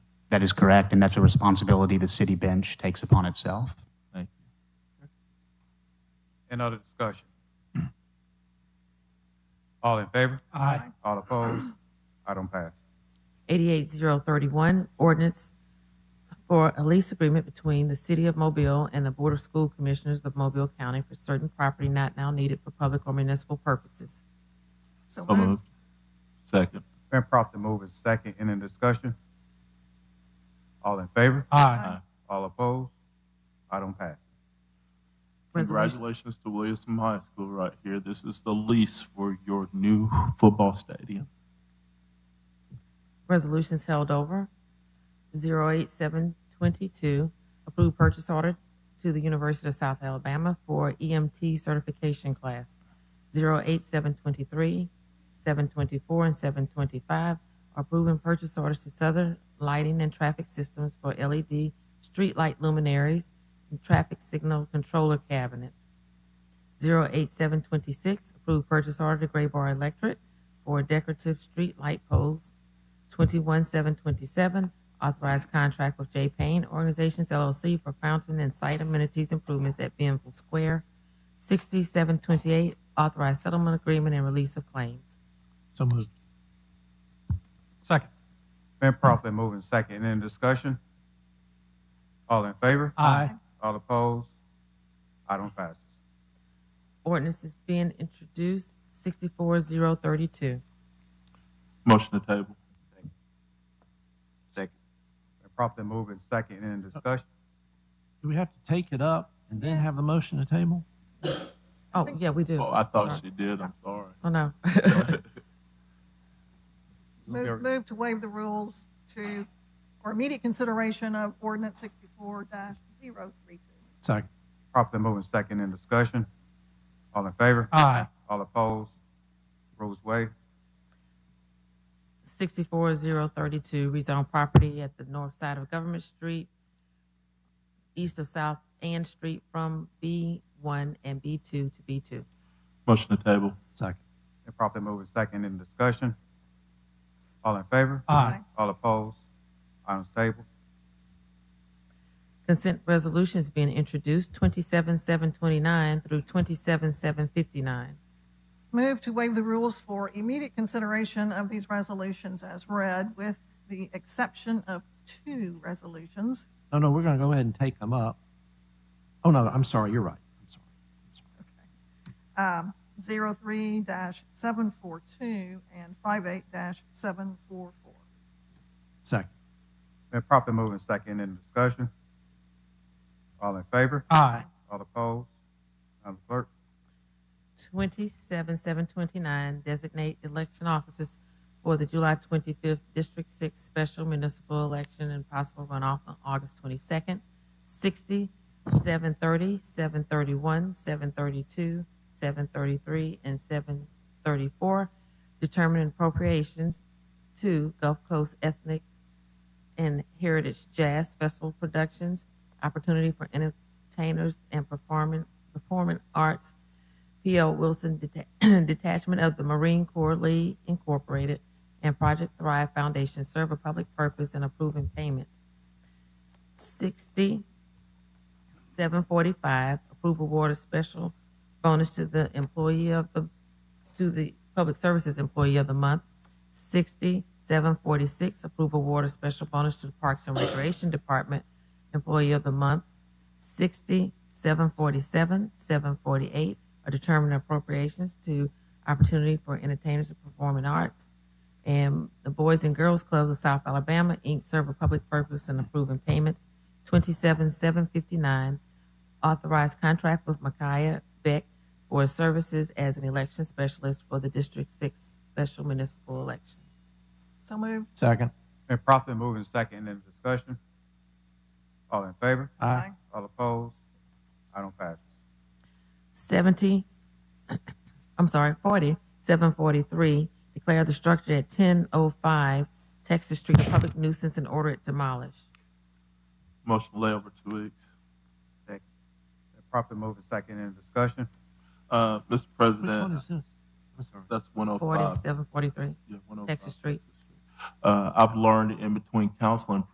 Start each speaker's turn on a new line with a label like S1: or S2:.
S1: That is correct, and that's a responsibility the city bench takes upon itself.
S2: Thank you. Any other discussion? All in favor? Aye. All opposed? Item pass.
S3: 88031, ordinance for a lease agreement between the City of Mobile and the Board of School Commissioners of Mobile County for certain property not now needed for public or municipal purposes.
S4: So
S5: So
S4: moved.
S5: moved. Second.
S2: Been properly moved and second. Any discussion? All in favor?
S4: Aye.
S2: All opposed? Item pass.
S3: Resolution-
S5: Congratulations to Williamson High School right here. This is the lease for your new football stadium.
S3: Resolutions held over. 08722, approved purchase order to the University of South Alabama for EMT certification class. 08723, 724, and 725, approving purchase orders to Southern Lighting and Traffic Systems for LED streetlight luminaries and traffic signal controller cabinets. 08726, approved purchase order to Gray Bar Electric for decorative street light poles. 21727, authorized contract with J. Payne Organizations LLC for fountain and site amenities improvements at Benville Square. 6728, authorized settlement agreement and release of claims.
S4: So moved. Second.
S2: Been properly moved and second. Any discussion? All in favor?
S4: Aye.
S2: All opposed? Item passes.
S3: Ordinance is being introduced, 64032.
S5: Motion to table.
S2: Second. Been properly moved and second. Any discussion?
S4: Do we have to take it up and then have the motion to table?
S3: Oh, yeah, we do.
S5: Oh, I thought she did. I'm sorry.
S3: Oh, no.
S2: Very- been
S4: Move- move-
S6: Move to waive the rules to, or immediate consideration of ordinance sixty-four 32
S4: Second.
S2: Properly moved and second. Any discussion? All in favor?
S4: Aye.
S2: All opposed? Rules waived.
S3: 64032, rezone oh property at the north side of Government Street, east of South Ann Street from B1 and B2 to B2.
S5: Motion to table.
S4: Second.
S2: Been properly moved and second. Any discussion? All in favor?
S4: Aye.
S2: All opposed? Item's tabled.
S3: Consent resolutions being introduced, 27729 through 27759.
S6: Move to waive the rules for immediate consideration of these resolutions as read, with the exception of two resolutions.
S4: No, no, we're going to go ahead and take them up. Oh, no, I'm sorry. You're right. I'm sorry. I'm sorry.
S6: um, 03-742 and 58-744.
S4: Second.
S2: Been properly moved and second. Any discussion? All in favor?
S4: Aye.
S2: All opposed? Madam Clerk?
S3: 27729, designate election officers for the July 25th District 6 special municipal election and possible runoff on August 22nd. 60, 730, 731, 732, 733, and 734. Determine appropriations to Gulf Coast Ethnic and Heritage Jazz Festival Productions, opportunity for entertainers and performing, performing arts P.O. Wilson Deta- Detachment of the Marine Corps League Incorporated and Project Thrive Foundation serve a public purpose in approving payment. 6745, approve award of special bonus to the employee of the, to the Public Services Employee of the Month. 6746, approve award of special bonus to the Parks and Recreation Department Employee of the Month. 60, 747, 748 are determined appropriations to opportunity for entertainers and performing arts. And the Boys and Girls Clubs of South Alabama, Inc. serve a public purpose in approving payment. 27759, authorized contract with Micaiah Beck for services as an election specialist for the District 6 special municipal election.
S6: So moved.
S4: Second.
S2: Been properly moved and second. Any discussion? All in favor?
S4: Aye.
S2: All opposed? Item passes.
S3: 70, I'm sorry, 40, 743, declare the structure at 1005 Texas Street a public nuisance and order it demolished.
S5: Motion to lay over two weeks.
S2: Second. Been properly moved and second. Any discussion?
S5: Uh, Mr.
S4: Which one
S5: President,
S4: is this? I'm sorry.
S5: that's one oh five.
S3: 4743.
S5: Yeah, 105.
S3: Texas Street.
S5: Uh, I've learned in between council and